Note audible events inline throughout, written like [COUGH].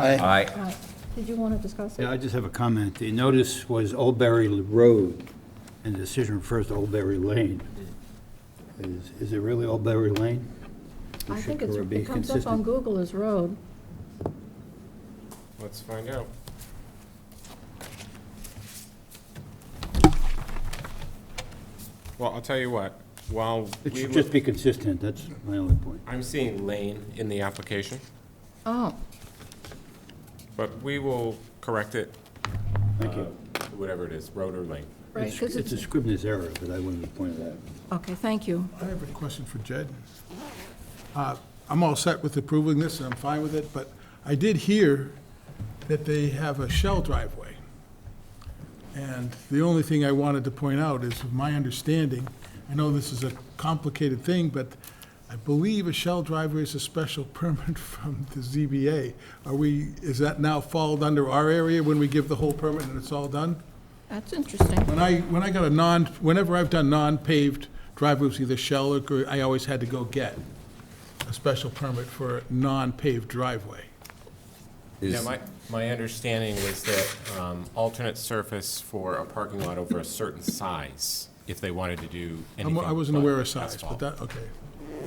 Aye. Aye. Uh, Did you want to discuss it? Yeah, I just have a comment. The notice was Oldbury Road, and the decision refers to Oldbury Lane. Is, is it really Oldbury Lane? Or I should think it's, it be it comes up on consistent? Google as road. Let's find out. Well, I'll tell you what, while It we should were, just be consistent, that's my only point. I'm seeing lane in the application, Oh, but we will correct it, uh, Thank you. whatever it is, road or lane. right, It's because it's a it's, Scribner's error, but I wanted to point it out. okay, thank you. I have a question for Jed. Uh, I'm all set with approving this, and I'm fine with it, but I did hear that they have a shell driveway. And the only thing I wanted to point out is, my understanding, I know this is a complicated thing, but I believe a shell driveway is a special [LAUGHS] permit from the ZBA. Are we, is that now followed under our area when we give the whole permit and it's all done? That's interesting. When I, when I got a non, whenever I've done non-paved driveways, either shell or, gr- I always had to go get a special permit for a non-paved driveway. Yeah, my, my understanding was that um, alternate surface for a parking lot over a certain size, if they wanted to do I'm- anything. I wasn't but aware of size, but asphalt. that, okay.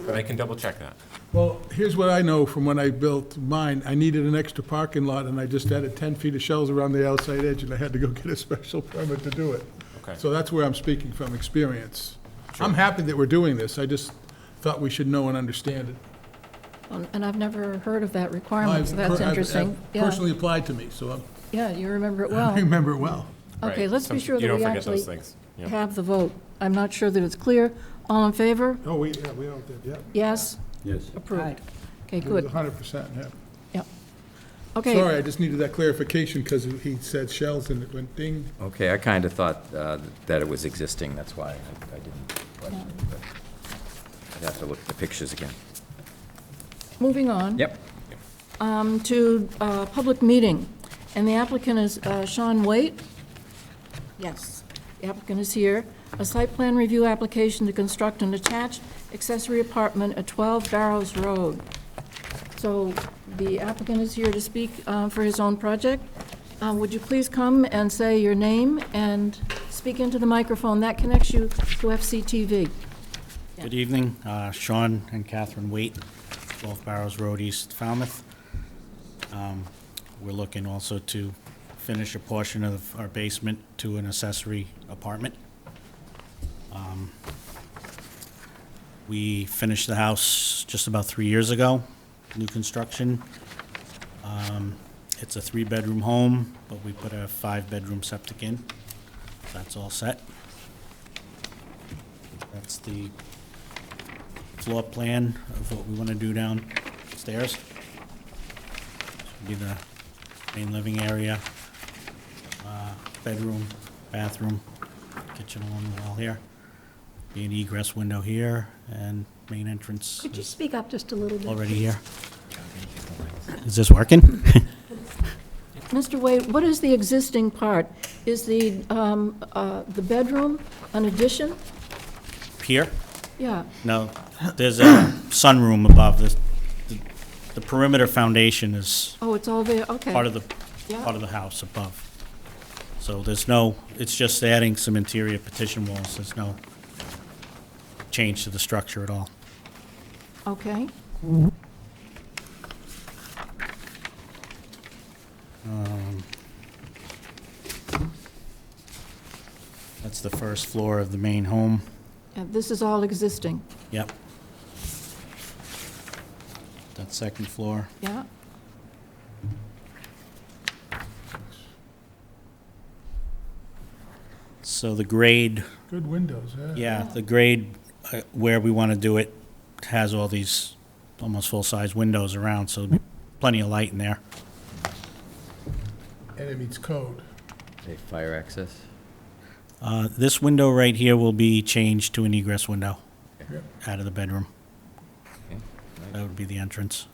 But I can double check that. Well, here's what I know from when I built mine. I needed an extra parking lot, and I just added 10 feet of shells around the outside edge, and I had to go [LAUGHS] get a special permit to do it. Okay. So that's where I'm speaking from experience. I'm happy that we're doing this. I just thought we should know and understand it. Um, And I've never heard of that requirement, so Oh, that's I've- I've interesting. Yeah, Personally applied to me, so I'm- yeah, you remember it I well. remember it well. Okay, Right. let's Some- be sure you that don't we forget those actually things. Yeah. have the vote. I'm not sure that it's clear. All in favor? Oh, we, yeah, we all did, yeah. Yes, Yes. approved. Okay, It was good. hundred percent, yeah. Yep. Okay. Sorry, I just needed that clarification because he said shells and it went ding. Okay, I kind of thought uh, that it was existing, that's why I I didn't question it, but I'd have to look at the pictures again. Moving on. Yep. um, To uh, public meeting, and the applicant is uh, Sean Waite. Yes. The applicant is here. A site plan review application to construct an attached accessory apartment at 12 Barrows Road. So the applicant is here to speak uh, for his own project. Uh, Would you please come and say your name and speak into the microphone? That connects you to FCTV. Good evening, uh, Sean and Catherine Waite, 12 Barrows Road, East Falmouth. Um, We're looking also to finish a portion of our basement to an accessory apartment. Um, We finished the house just about three years ago, new construction. Um, It's a three-bedroom home, but we put a five-bedroom septic in. That's all set. That's the floor plan of what we want to do downstairs. Be the main living area, uh, bedroom, bathroom, kitchen along the wall here. Be an egress window here, and main entrance Could you is speak up just a little bit? already here. Is this working? [LAUGHS] Mr. Wade, what is the existing part? Is the, um, uh, the bedroom an addition? Here? Yeah, No, there's a [COUGHS] sunroom above this. The- The perimeter foundation is oh, it's all there, okay. part of the, Yeah. part of the house above. So there's no, it's just adding some interior petition walls, there's no change to the structure at all. Okay, That's the first floor of the main home, and this is all existing, yep. That second floor, yeah? so the grade Good windows, yeah. Yeah, the grade uh, where we want to do it has all these almost full-size windows around, so plenty of light in there. And it meets code. Okay, fire access? Uh, This window right here will be changed to an egress window Yep. out of the bedroom. Okay, That would be the entrance.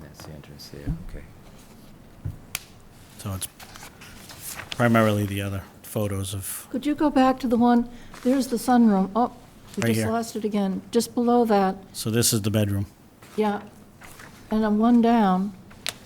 That's the entrance there, okay. So it's primarily the other photos of, Could you go back to the one, there's the sunroom, oh, we Right just here. lost it again, just below that, so this is the bedroom. yeah. And then one down,